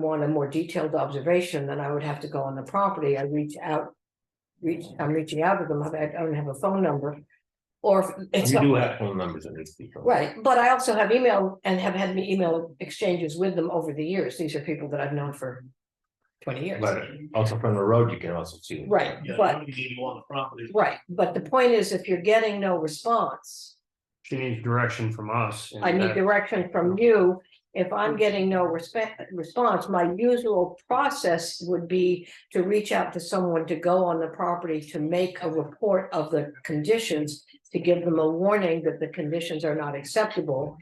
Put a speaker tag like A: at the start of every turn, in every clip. A: want a more detailed observation, then I would have to go on the property. I reach out. Reach, I'm reaching out to them. I don't have a phone number. Or if it's.
B: You do have phone numbers in this. people.
A: Right, but I also have email and have had me email exchanges with them over the years. These are people that I've known for twenty years.
B: But also from the road, you can also see. them.
A: Right,
C: Yeah,
A: but,
C: nobody gave you all the property.
A: right, but the point is, if you're getting no response,
C: She needs direction from us.
A: I
B: Uh,
A: need direction from you. If I'm getting no respect, response, my usual process would be to reach out to someone to go on the property to make a report of the conditions. To give them a warning that the conditions are not acceptable.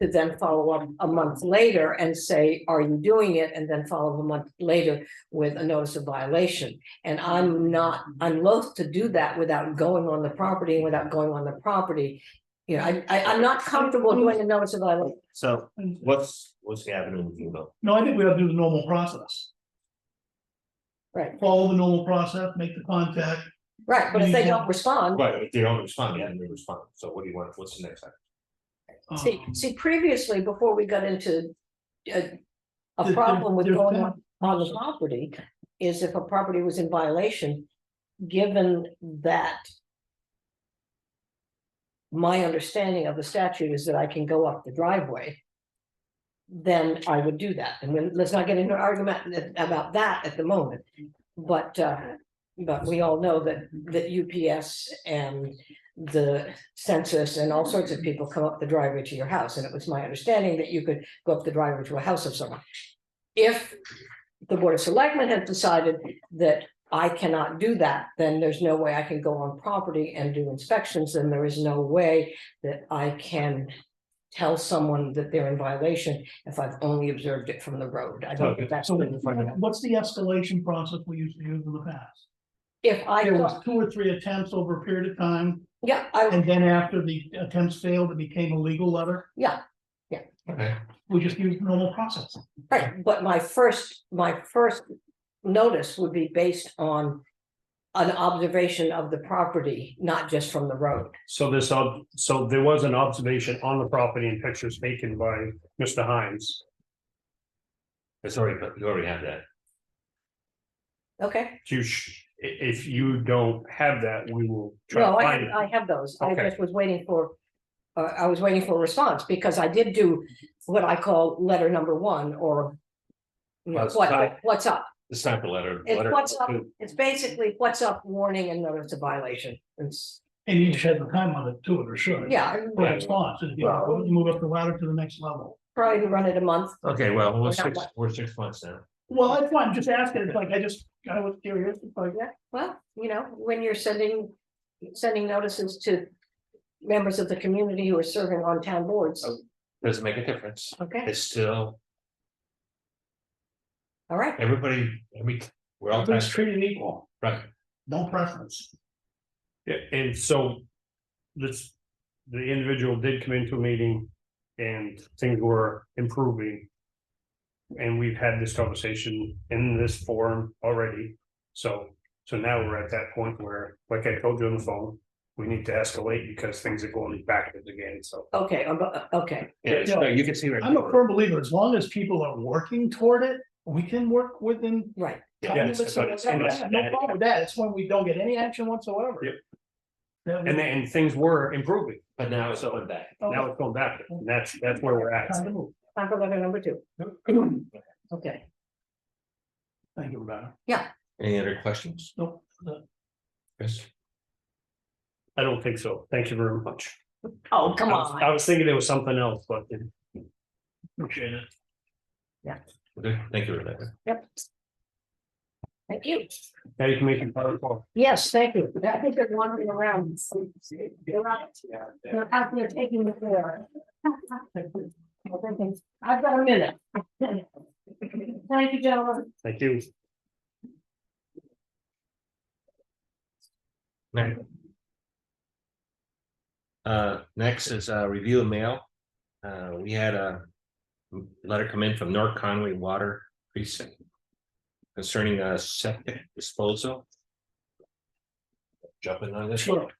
A: To then follow up a month later and say, are you doing it? And then follow up a month later with a notice of violation. And I'm not, I'm loath to do that without going on the property, and without going on the property. You know, I, I, I'm not comfortable doing a notice of violation.
B: So what's, what's the avenue with you though?
C: No, I think we have to do the normal process,
A: Right,
C: follow the normal process, make the contact.
A: right, but if they don't respond,
B: Right, if they don't respond, yeah, they respond. So what do you want? What's the next? action?
C: um,
A: see, see previously, before we got into. A, a
C: There-
A: problem with
C: there-
A: going on,
C: there's
A: on the property is if a property was in violation, given that. My understanding of the statute is that I can go up the driveway. Then I would do that, and then, let's not get into an argument about that at the moment. But, uh, but we all know that, that UPS and the census and all sorts
C: Mm-hmm.
A: of people come up the driveway to your house, and it was my understanding that you could go up the driveway to a house of someone. If the Board of Selectmen had decided that I cannot do that, then there's no way I can go on property and do inspections, and there is no way that I can tell someone that they're in violation if I've only observed it from the road. I don't think that's.
C: So what's the escalation process we used to use in the past?
A: If I,
C: There
A: thought-
C: was two or three attempts over a period of time,
A: yeah, I,
C: and then after the attempts failed, it became a legal letter.
A: yeah,
B: Okay,
C: We just used the normal process.
A: right, but my first, my first notice would be based on an observation of the property, not just from the road.
D: So this, ob- so there was an observation on the property and pictures taken by Mr. Hines.
B: that's already, Uh, you already have that.
A: Okay,
D: You sh- i- if you don't have that, we will try
A: no,
D: to
A: I,
D: find
A: have- I
D: it.
A: have those. I
D: Okay.
A: just was waiting for, uh, I was waiting for a response because I did do what I call letter number one or you know,
B: That's
A: what,
B: right.
A: what's up?
B: It's not the letter.
A: It's
B: letter-
A: what's up. It's basically what's up warning and notice of violation. It's,
C: And you just had the time on it too, or sure.
A: yeah, I
C: For response, if you
A: Well-
C: you move up the ladder to the next level.
A: probably run it a month.
B: Okay, well,
A: We're
B: we're
A: not
B: six,
A: what-
B: we're six months now.
C: Well, that's why I'm just asking, it's like, I just, I was curious, it's like,
A: Yeah, well, you know, when you're sending, sending notices to members of the community who are serving on town boards.
B: Oh. Doesn't make a difference.
A: Okay,
B: It's still,
A: all right,
B: everybody, I mean, we're all.
C: everybody's treated equal,
B: Right,
C: no preference.
D: Yeah, And so this, the individual did come into a meeting and things were improving. And we've had this conversation in this forum already. So, so now we're at that point where, like I told you on the phone, we need to escalate because things are going backwards again, so.
A: okay, I'm- uh, okay,
B: yeah, so you can see. right
C: I'm a
B: now.
C: firm believer, as long as people are working toward it, we can work with them.
A: right.
B: Yeah,
D: Yes,
C: No
D: but it's- and it's-
C: problem with that, it's when we don't get any action whatsoever.
D: Yep.
C: That we-
D: And then, and things were improving,
B: But now it's going back.
C: Oh.
D: now it's going back, and that's, that's where we're at.
C: Time to move.
A: Time for letter number two. Okay,
C: Thank you, Rebecca.
B: Any other questions,
C: No,
B: Chris?
D: I don't think so, thank you very much.
A: oh, come
D: I was-
A: on.
D: I was thinking there was something else, but
C: appreciate it.
B: Okay, thank you, Rebecca.
A: Yep. Thank you.
D: now you can make your phone call.
A: Yes, thank you. I think they're wandering around. They're out, they're out there taking the floor. I've got a minute. Thank you, gentlemen.
D: Thank you.
B: Right. Uh, next is uh review of mail. Uh, we had a letter come in from North Conway Water Precinct concerning a septic disposal. Jumping on this.
C: Sure.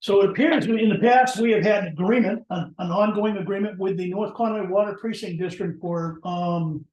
C: So it appears in the past, we have had an agreement, an, an ongoing agreement with the North Conway Water Precinct District for, um,